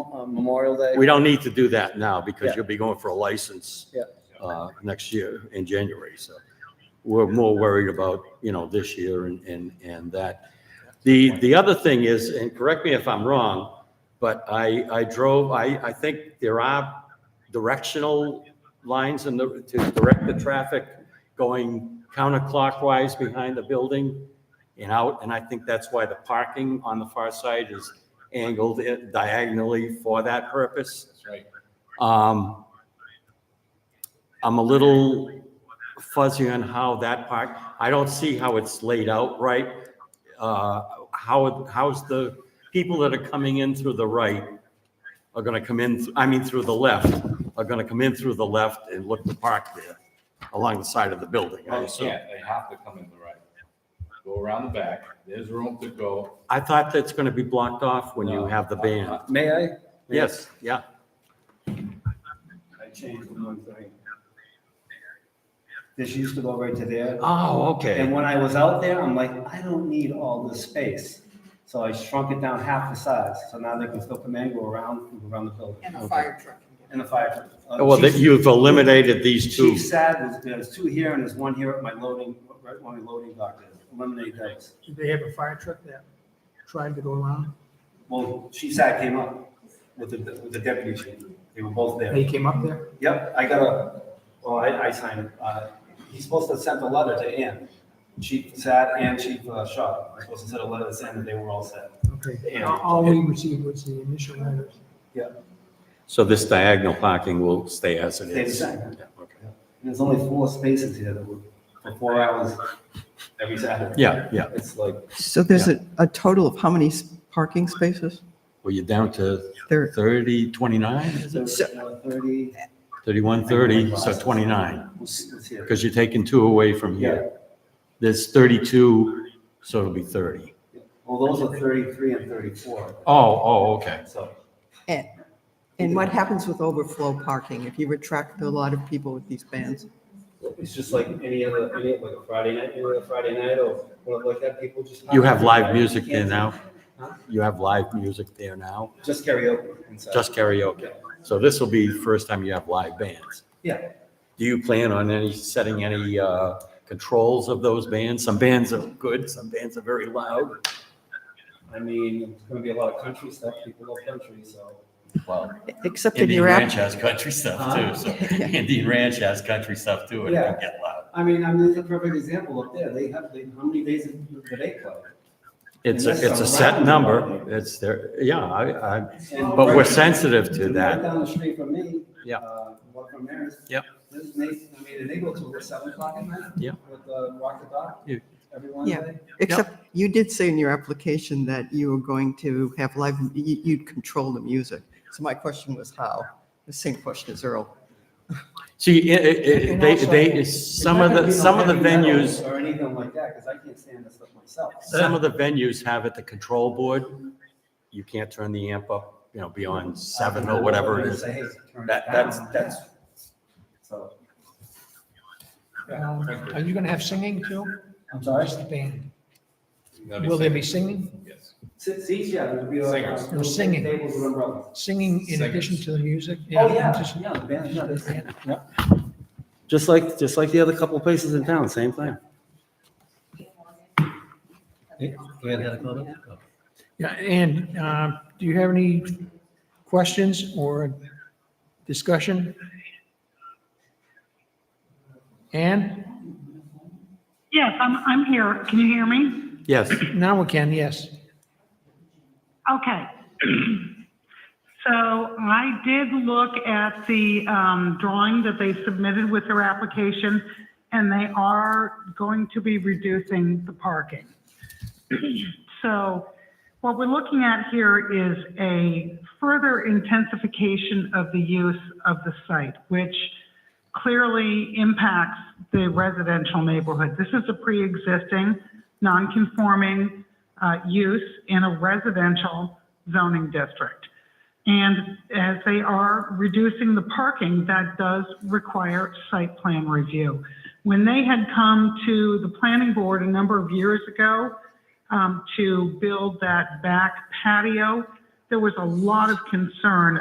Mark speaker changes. Speaker 1: uh, Memorial Day.
Speaker 2: We don't need to do that now
Speaker 1: Yeah.
Speaker 2: because you'll be going for a license.
Speaker 1: Yeah.
Speaker 2: Uh, next year in January, so we're more worried about, you know, this year and, and, and that. The, the other thing is, and correct me if I'm wrong, but I, I drove, I, I think there are directional lines in the, to direct the traffic going counterclockwise behind the building and out, and I think that's why the parking on the far side is angled diagonally for that purpose.
Speaker 3: That's right.
Speaker 2: Um, I'm a little fuzzy on how that part, I don't see how it's laid out right. Uh, how, how's the people that are coming in through the right are gonna come in, I mean, through the left, are gonna come in through the left and look to park there along the side of the building, I
Speaker 3: Well, they
Speaker 2: assume.
Speaker 3: can't, they have to come in the right. Go around the back, there's room to go.
Speaker 2: I thought that's gonna be blocked off when you
Speaker 3: No.
Speaker 2: have the band.
Speaker 1: May I?
Speaker 2: Yes, yeah.
Speaker 1: I changed one thing. This used to go right to there.
Speaker 2: Oh, okay.
Speaker 1: And when I was out there, I'm like, I don't need all this space. So I shrunk it down half the size. So now they can still come in, go around, and go around the building.
Speaker 4: And a fire truck.
Speaker 1: And the fire. uh,
Speaker 2: Well, that
Speaker 1: Chief-
Speaker 2: you've eliminated these two.
Speaker 1: Chief Sad was, there's two here and there's one here at my loading, right when we loading dock. is. Eliminate those.
Speaker 5: Did they have a fire truck that tried to go around?
Speaker 1: Well, Chief Sad came up with the, with the deputy chief. They were both there.
Speaker 5: They came up there?
Speaker 1: Yep, I got a, well, I, I signed it. Uh, He's supposed to send a letter to Ann, Chief Sad and Chief uh, Shaw. They're supposed to send a letter to Ann that they were all set.
Speaker 5: Okay.
Speaker 1: Yeah.
Speaker 5: All- All we received was the initial letters.
Speaker 2: So this diagonal parking will stay as it
Speaker 1: Stay the
Speaker 2: is?
Speaker 1: same.
Speaker 2: Yeah, okay.
Speaker 1: And There's only four spaces here that were for four hours every Saturday.
Speaker 2: Yeah, yeah.
Speaker 1: It's like,
Speaker 4: So there's a, a total of how many s- parking spaces?
Speaker 2: Well, you're down to
Speaker 4: There,
Speaker 2: 30, 29, is it?
Speaker 1: there's uh, thirty.
Speaker 2: 31, 30, so 29,
Speaker 1: It's here.
Speaker 2: because you're taking two away from
Speaker 1: Yeah,
Speaker 2: here. There's 32, so it'll be 30.
Speaker 1: well, those are thirty-three and thirty-four,
Speaker 2: Oh, oh, okay.
Speaker 1: so.
Speaker 4: and, and what happens with overflow parking if you attract a lot of people with these bands?
Speaker 1: It's just like any other, any, like a Friday night, any other Friday night or one like that, people just.
Speaker 2: You have live music there
Speaker 1: Can't-
Speaker 2: now?
Speaker 1: Huh?
Speaker 2: You have live music there now?
Speaker 1: Just karaoke inside.
Speaker 2: Just karaoke? So this will be the first time you have live bands.
Speaker 1: Yeah.
Speaker 2: Do you plan on any, setting any uh, controls of those bands? Some bands are good, some bands are very loud.
Speaker 1: I mean, it's gonna be a lot of country stuff, people love country, so.
Speaker 2: Well,
Speaker 4: Except in
Speaker 2: Indian
Speaker 4: your app,
Speaker 2: Ranch has country stuff
Speaker 1: Huh?
Speaker 2: too, so Indian Ranch has country stuff too, and it can get loud.
Speaker 1: I mean, I mean, there's a perfect example up there, they have, they, how many days do they play?
Speaker 2: It's, a
Speaker 1: And
Speaker 2: it's a
Speaker 1: that's
Speaker 2: set
Speaker 1: around
Speaker 2: number,
Speaker 1: the-
Speaker 2: it's there, yeah, I, I,
Speaker 1: And
Speaker 2: but we're
Speaker 1: right-
Speaker 2: sensitive to
Speaker 1: right
Speaker 2: that.
Speaker 1: Down the street from me.
Speaker 2: Yeah.
Speaker 1: uh, One from Maris.
Speaker 2: Yep.
Speaker 1: This is Nathan, I mean, and they go till seven o'clock at night.
Speaker 2: Yeah.
Speaker 1: With the walk the dog
Speaker 2: Yeah.
Speaker 1: every Wednesday.
Speaker 4: except you did say in your application that you were going to have live, you- you'd control the music. So my question was how? The same question as Earl.
Speaker 2: See, i- i- i- they, they, some of the, some of the venues,
Speaker 1: Or anything like that, because I can't stand this stuff myself.
Speaker 2: some of the venues have it the control board. You can't turn the amp up, you know, beyond seven or whatever it is.
Speaker 1: Say, hey, turn it
Speaker 2: That, that's,
Speaker 1: down.
Speaker 2: that's,
Speaker 1: So,
Speaker 5: Um, Are you going to have singing too?
Speaker 1: I'm sorry?
Speaker 5: Just the band.
Speaker 3: That'd
Speaker 5: Will there be singing?
Speaker 3: Yes.
Speaker 1: See- See, yeah, there'd be like.
Speaker 3: Singers.
Speaker 5: No singing.
Speaker 1: Tables with umbrellas.
Speaker 5: Singing in addition to the music?
Speaker 1: Oh, yeah,
Speaker 5: just-
Speaker 1: yeah, the band, yeah,
Speaker 5: just the band.
Speaker 1: yeah. Just like, just like the other couple places in town, same thing.
Speaker 5: Yeah, and um, do you have any questions or discussion? Ann?
Speaker 6: Yes, I'm, I'm here. Can you hear me?
Speaker 2: yes,
Speaker 5: Now we can, yes.
Speaker 6: Okay. So I did look at the um, drawing that they submitted with their application, and they are going to be reducing the parking. So what we're looking at here is a further intensification of the use of the site, which clearly impacts the residential neighborhood. This is a pre-existing, non-conforming uh, use in a residential zoning district. And as they are reducing the parking, that does require site plan review. When they had come to the planning board a number of years ago um, to build that back patio, there was a lot of concern